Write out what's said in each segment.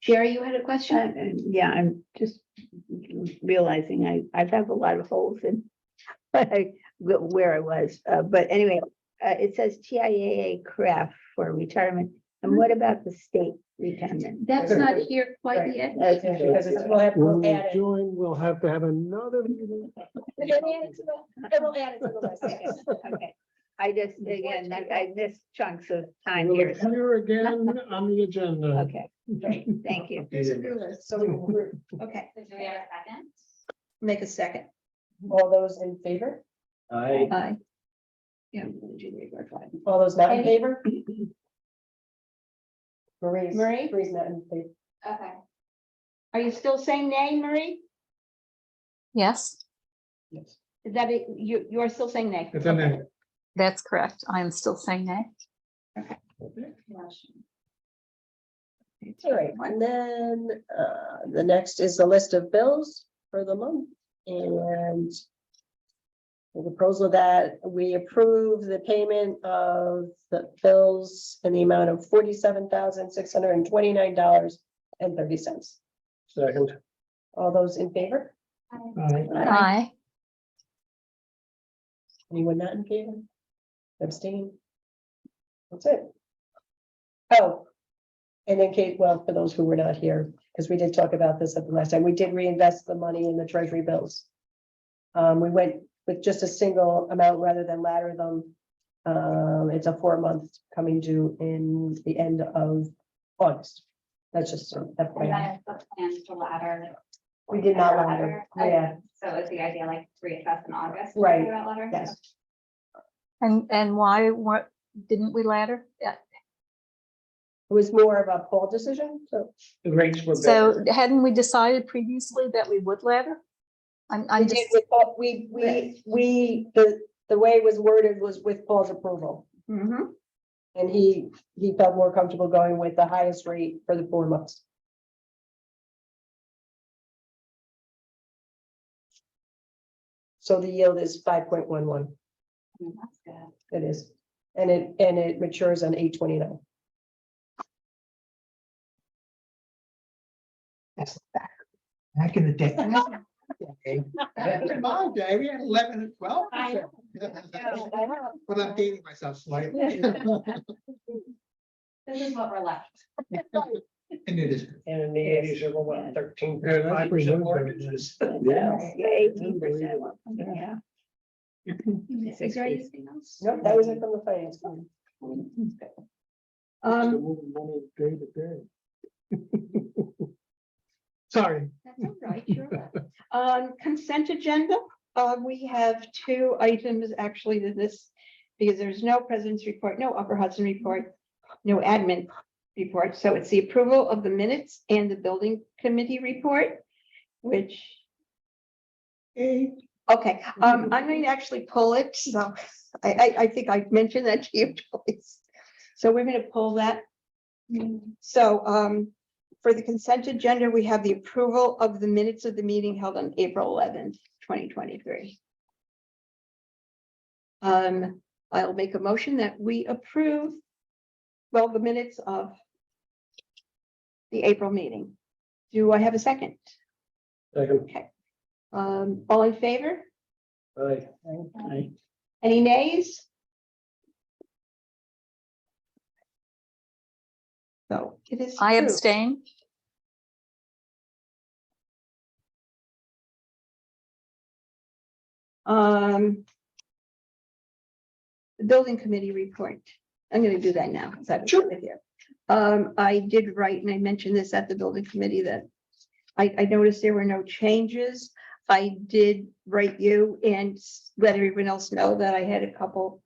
Sherry, you had a question? I- I- Yeah, I'm just realizing I, I've had a lot of holes in what I- wh- where I was, uh, but anyway, uh, it says TIAA craft for retirement. And what about the state retirement? That's not here quite Right. yet. That's- Because it's, we'll have, When we'll we add it. join, we'll have to have another meeting. We'll add it to the- then we'll add it to the list, I guess. Okay. I just, again, I I missed chunks of time We'll here. so- appear again on the agenda. Okay, thank you. So we, we're, okay, Do we have a second? Make a second. all those in favor? I, Aye. All those not in favor? Marie's. Marie? Marie's not in favor. Okay. Are you still saying nay, Marie? Yes, Yes. Is that, it? you, you're still saying nay? It's a name. that's correct. I am still saying nay. Motion. All right, and then, uh, the next is the list of bills for the month and the proposal that we approve the payment of the bills in the amount of forty-seven thousand, six hundred and twenty-nine dollars and thirty cents. Second. All those in favor? Aye. Aye. Anyone not in favor? Abstain? That's it. Oh. And then Kate, well, for those who were not here, because we did talk about this at the last time, we did reinvest the money in the treasury bills. Um, we went with just a single amount rather than ladder them. Um, it's a four month coming due in the end of August. That's just. an And FYI. then the plans to ladder. We did not ladder, Okay, yeah. So is the idea like reassess in August? Right. to do that ladder? Yes. And, and why, what, didn't we ladder? Yeah. It was more of a poll decision, so. the rates were better. So hadn't we decided previously that we would ladder? I'm, We I'm did just, with Paul- we, we, we, the, the way it was worded was with Paul's approval. Mhm. And he, he felt more comfortable going with the highest rate for the four months. So the yield is five point one one, Mm, That's good. it is, and it, and it matures on eight twenty nine. That's back, back in the day. Okay. Back in my day, we had eleven and twelve. I know. But I'm dating myself slightly. This is what we're left. And it is. And in the Yes. eighties, there were what, thirteen, Yeah, that's five pretty percent good. mortgages. Um, Eighteen percent, yeah. Is there anything else? Nope, that was it from the finance. committee. Um, Moving money Day to day. Sorry. That's all right, you're right. Um, consent agenda, uh, we have two items actually to this, because there's no president's report, no Upper Hudson report, no admin report, so it's the approval of the minutes and the building committee report, which, okay, um, I'm going to actually pull it, so I, I, I think I mentioned that to you twice. So we're gonna pull that. Mm-hmm. So, um, for the consent agenda, we have the approval of the minutes of the meeting held on April eleventh, twenty twenty-three. Um, I'll make a motion that we approve, well, the minutes of the April meeting. Do I have a second? Second, Um, all in favor? aye. Any nays? So it is. I approved. abstain. Um. The building committee report. I'm gonna do that now. 'cause I was with you. Um, I did write, and I mentioned this at the building committee that. I, I noticed there were no changes. I did write you and s- let everyone else know that I had a couple.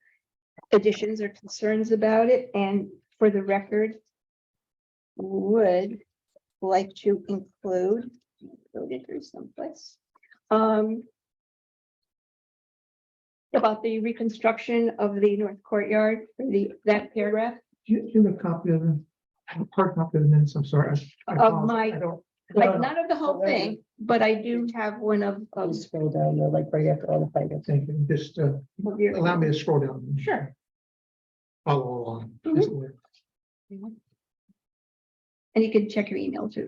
Additions or concerns about it, and for the record. Would like to include. Wrote it through someplace. Um about the reconstruction of the north courtyard, for the, that paragraph Do you do you have a copy of the, hard copy of the minutes, I'm sorry. I- I Of apologize. my- I don't- like, not of the whole Alright. thing, but I do have one of, I'll of just scroll down, there, like right after all the finance. Thank you, just uh, of your- allow me to scroll down. Sure. Mm-hmm. Follow along. Mhm. And you can check your email too.